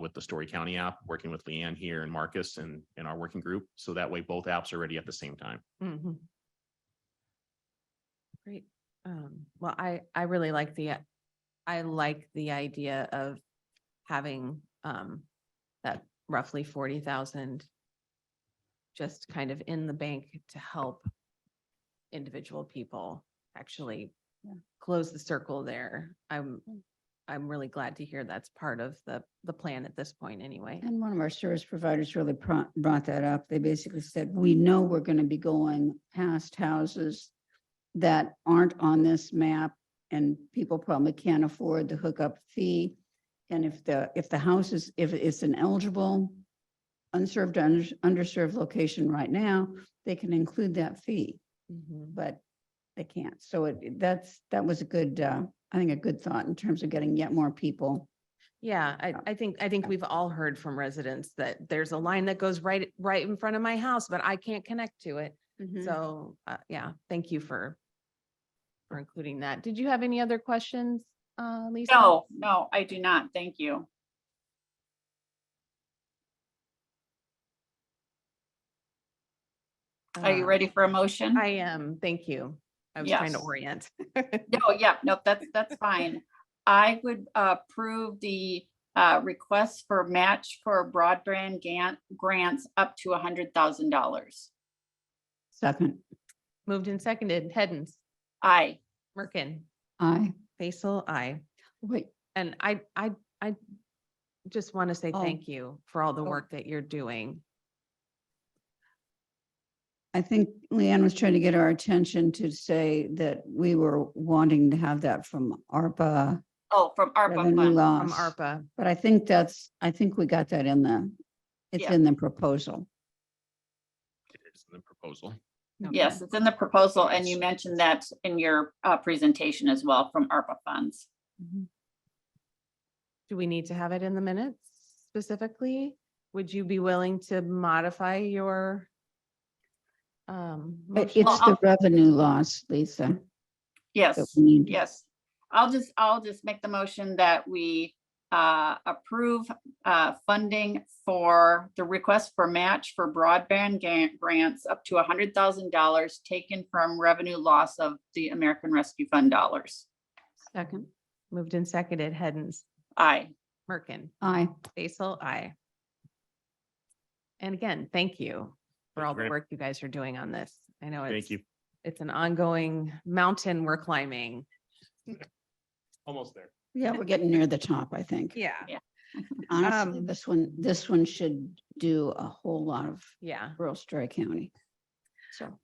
with the Story County app, working with Leanne here and Marcus and, and our working group. So that way both apps are ready at the same time. Mhm. Great. Um, well, I, I really like the, I like the idea of having, um, that roughly forty thousand just kind of in the bank to help individual people actually Yeah. Mm. close the circle there. I'm, I'm really glad to hear that's part of the, the plan at this point anyway. And one of our service providers really pro- brought that up. They basically said, we know we're going to be going past houses that aren't on this map and people probably can't afford the hookup fee. And if the, if the house is, if it's an eligible unserved, under- underserved location right now, they can include that fee, Mhm. but they can't. So it, that's, that was a good, uh, I think a good thought in terms of getting yet more people. Yeah, I, Yeah. I think, I think Yeah. we've all heard from residents that there's a line that goes right, right in front of my house, but I can't connect to it. Mm-hmm. So, uh, yeah, thank you for, for including that. Did you have any other questions, uh, Lisa? No, no, I do not. Thank you. Are you Uh, ready for a motion? I am, thank you. I was trying to Yes. orient. No, yeah, no, that's, that's fine. I would uh, approve the uh, request for match for broadband gan- grants up to a hundred thousand dollars. Second, Moved and seconded, Hens, Aye, Merkin, aye. Basil, I. Wait, And I, I, I just want to say Oh. thank you for all the Oh. work that you're doing. I think Leanne was trying to get our attention to say that we were wanting to have that from ARPA oh, from ARPA revenue fund. From loss. ARPA, But I think that's, I think we got that in the, it's Yeah. in the proposal. It is in the proposal. Yes, it's in the proposal and you mentioned that in your uh, presentation as well from ARPA funds. Do we need to have it in the minutes specifically? Would you be willing to modify your? um, But motion? it's the revenue loss, Lisa, that Yes. we need. Yes, I'll just, I'll just make the motion that we uh, approve uh, funding for the request for match for broadband ga- grants up to hundred thousand dollars taken from revenue loss of the American Rescue Fund dollars. Second, Moved and seconded, Hens, Aye, Merkin, aye. Basil, I. And again, thank you for Thank all you the very- work you guys are doing on this. I know it's, Thank you. it's an ongoing mountain we're climbing. Almost there. Yeah, we're getting near the top, I think. Yeah. Honestly, Um, this one, this one should do a whole lot of Yeah. rural Story County. So.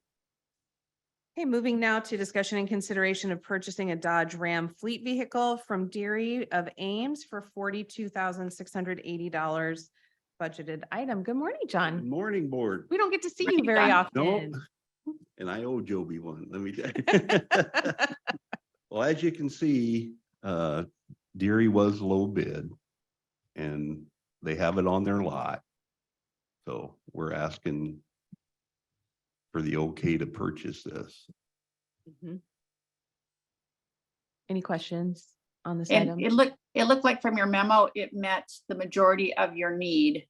Okay, moving now to discussion and consideration of purchasing a Dodge Ram fleet vehicle from Deary of Ames for forty-two thousand six hundred eighty dollars budgeted item. Good morning, Good John. Morning, board. We don't get to see you Morning, very John. often. And I owe Joby one, let me. tell you. Well, as you can see, uh, Deary was low bid. And they have it on their lot. So we're asking for the okay to purchase this. Mhm. Any questions on this item? and it looked, it looked like from your memo, it met the majority of your need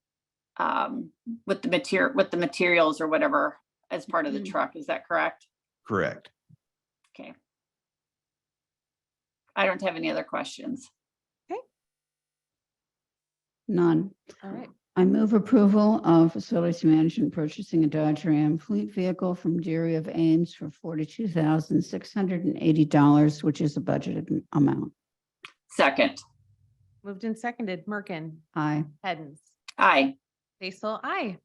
um, with the material, with the materials or whatever as part of the Mhm. truck, is that correct? Correct. Okay. I don't have any other questions. None. All right, I move approval of facilities management purchasing a Dodge Ram fleet vehicle from Deary of Ames for forty-two thousand six hundred and eighty dollars, which is a budgeted m- amount. Second, moved and seconded. Merkin, Aye. Hens, aye, Basil, I.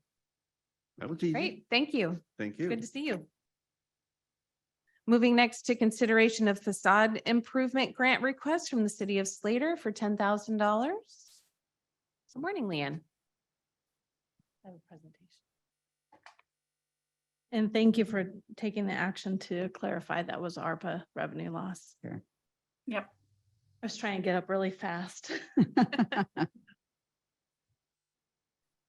That was easy. Great, thank you. Thank you. Good to see you. Moving next to consideration of facade improvement grant request from the city of Slater for ten thousand dollars. Good morning, Leanne. I have a presentation. And thank you for taking the action to clarify that was ARPA revenue loss. Sure. Yep. I was trying to get up really fast.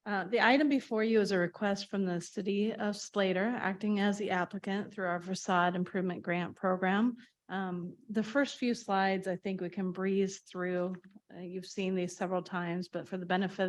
Uh, The item before you is a request from the city of Slater, acting as the applicant through our facade improvement grant program Um, the first few slides, I think we can breeze through. Uh, You've seen these several times, but for the benefit of